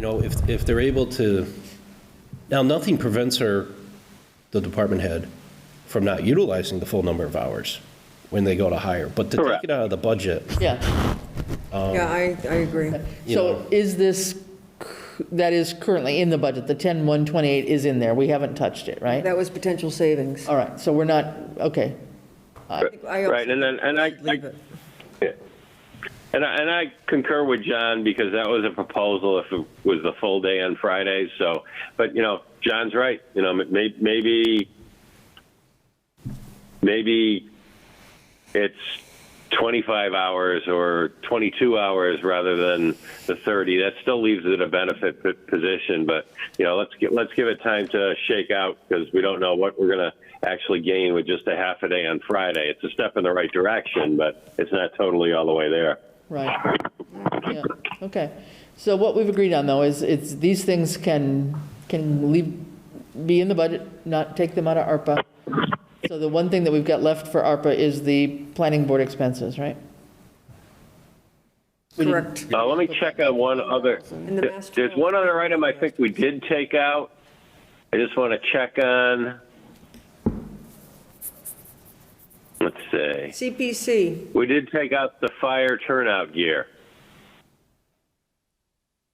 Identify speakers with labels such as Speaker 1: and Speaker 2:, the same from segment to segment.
Speaker 1: know, if, if they're able to, now, nothing prevents her, the department head, from not utilizing the full number of hours when they go to hire, but to take
Speaker 2: Correct.
Speaker 1: it out of the budget,
Speaker 3: Yeah,
Speaker 4: Yeah, I, I agree.
Speaker 1: you know.
Speaker 3: so is this, c- that is currently in the budget, the 10,128 is in there, we haven't touched it, right?
Speaker 4: That was potential savings.
Speaker 3: All right, so we're not, okay,
Speaker 4: I also
Speaker 2: Right, and then, and I,
Speaker 4: leave
Speaker 2: I-
Speaker 4: it.
Speaker 2: and I, and I concur with John because that was a proposal if it was the full day on Fridays, so, but, you know, John's right, you know, may, maybe, maybe it's 25 hours or 22 hours rather than the 30. That still leaves it a benefit p- position, but you know, let's get, let's give it time to shake out because we don't know what we're going to actually gain with just a half a day on Friday. It's a step in the right direction, but it's not totally all the way there.
Speaker 3: right. Yeah, Okay, so what we've agreed on, though, is it's, these things can, can leave, be in the budget, not take them out of ARPA. So the one thing that we've got left for ARPA is the planning board expenses, right?
Speaker 4: Correct.
Speaker 2: Uh, let me check on one other.
Speaker 4: And the master
Speaker 2: There's one other item I think we did take out. I just want to check on. Let's see.
Speaker 4: CPC,
Speaker 2: We did take out the fire turnout gear.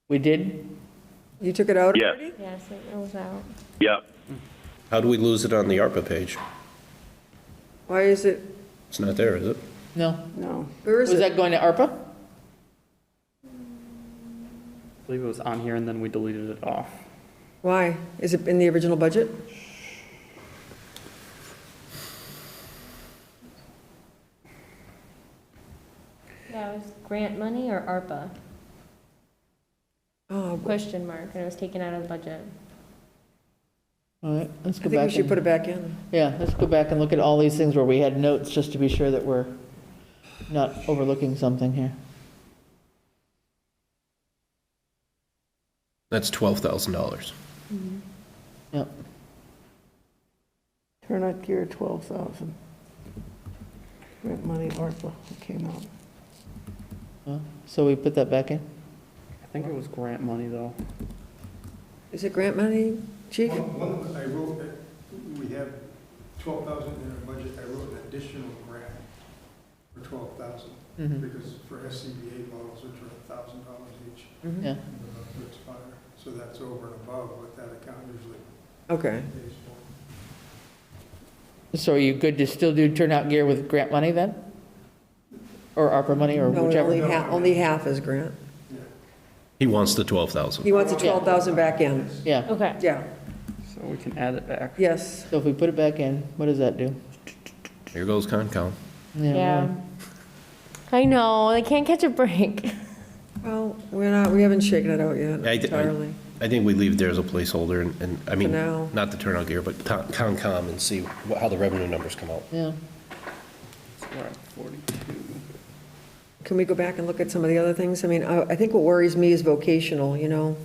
Speaker 3: We did?
Speaker 4: you took it out
Speaker 2: Yeah.
Speaker 4: already?
Speaker 5: Yes, it rolls out.
Speaker 2: Yep.
Speaker 1: How do we lose it on the ARPA page?
Speaker 4: Why is it,
Speaker 1: It's not there, is it?
Speaker 3: No?
Speaker 4: no, where is
Speaker 3: Was
Speaker 4: it?
Speaker 3: that going to ARPA?
Speaker 6: I believe it was on here and then we deleted it off.
Speaker 4: Why? Is it in the original budget?
Speaker 5: Yeah, it was grant money or ARPA?
Speaker 4: Oh,
Speaker 5: Question mark, and it was taken out of the budget.
Speaker 3: All right, let's
Speaker 4: I
Speaker 3: go back.
Speaker 4: think we should
Speaker 3: and-
Speaker 4: put it back in.
Speaker 3: Yeah, let's go back and look at all these things where we had notes, just to be sure that we're not overlooking something here.
Speaker 1: That's $12,000.
Speaker 3: Yep.
Speaker 7: Turnout gear, 12,000. Grant money, ARPA, it came out.
Speaker 3: Well, So we put that back in?
Speaker 6: I think it was grant money though.
Speaker 4: Is it grant money, chief?
Speaker 8: One, one, I wrote, that we have twelve thousand in our budget, I wrote an additional grant for twelve thousand, because for SCBA models, which are a thousand dollars each,
Speaker 3: Yeah,
Speaker 8: uh, to expire, so that's over and above what that account usually
Speaker 4: Okay.
Speaker 8: pays for.
Speaker 3: so are you good to still do turnout gear with grant money then? Or ARPA money, or
Speaker 4: No, only
Speaker 3: whichever?
Speaker 4: half, only half is grant.
Speaker 1: He wants the 12,000.
Speaker 4: He wants the 12,000 back in.
Speaker 3: Yeah,
Speaker 5: Okay.
Speaker 4: Yeah,
Speaker 6: So we can add it back.
Speaker 4: yes.
Speaker 3: so if we put it back in, what does that do?
Speaker 1: Here goes Concom.
Speaker 5: Yeah. I know, they can't catch a break.
Speaker 4: Well, we're not, we haven't shaken it out yet
Speaker 1: I- I-
Speaker 4: entirely.
Speaker 1: I think we leave there as a placeholder, and- and, I mean,
Speaker 4: now.
Speaker 1: not the turnout gear, but Con- Concom, and see wh- how the revenue numbers come out.
Speaker 3: Yeah,
Speaker 6: So we're at 42.
Speaker 4: Can we go back and look at some of the other things? I mean, I, I think what worries me is vocational, you know?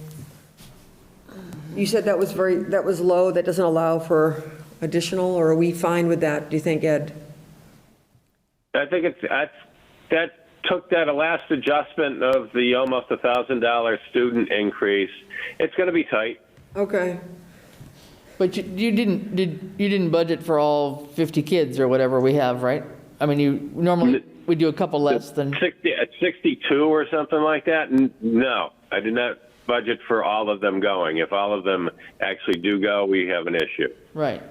Speaker 4: You said that was very, that was low, that doesn't allow for additional, or are we fine with that, do you think, Ed?
Speaker 2: I think it's, that's, that took that last adjustment of the almost a thousand dollar student increase. It's going to be tight.
Speaker 4: Okay,
Speaker 3: but you, you didn't, did, you didn't budget for all 50 kids or whatever we have, right? I mean, you, normally, we do a couple less than,
Speaker 2: 60, at 62 or something like that? N- No, I did not budget for all of them going. If all of them actually do go, we have an issue.
Speaker 3: right.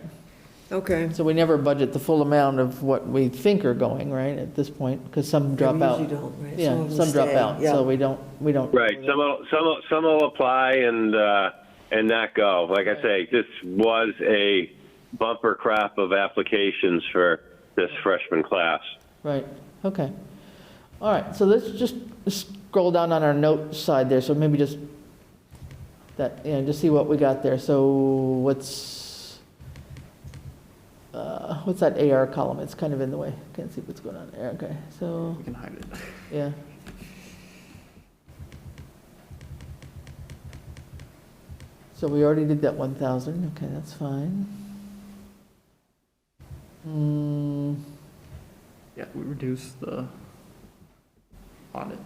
Speaker 4: okay.
Speaker 3: So we never budget the full amount of what we think are going, right, at this point, because some drop out.
Speaker 4: usually don't, right? Some
Speaker 3: Yeah,
Speaker 4: of them
Speaker 3: some drop
Speaker 4: stay,
Speaker 3: out,
Speaker 4: yeah.
Speaker 3: so we don't, we don't.
Speaker 2: Right. Some will, some will, some will apply and uh, and not go. Like I say, this was a bumper crop of applications for this freshman class.
Speaker 3: Right, okay. All right, so let's just scroll down on our note side there, so maybe just that, you know, just see what we got there. So what's, uh, what's that AR column? It's kind of in the way. Can't see what's going on there, okay, so,
Speaker 6: We can hide it.
Speaker 3: yeah. So we already did that 1,000, okay, that's fine. Hmm.
Speaker 6: Yeah, we reduced the audit.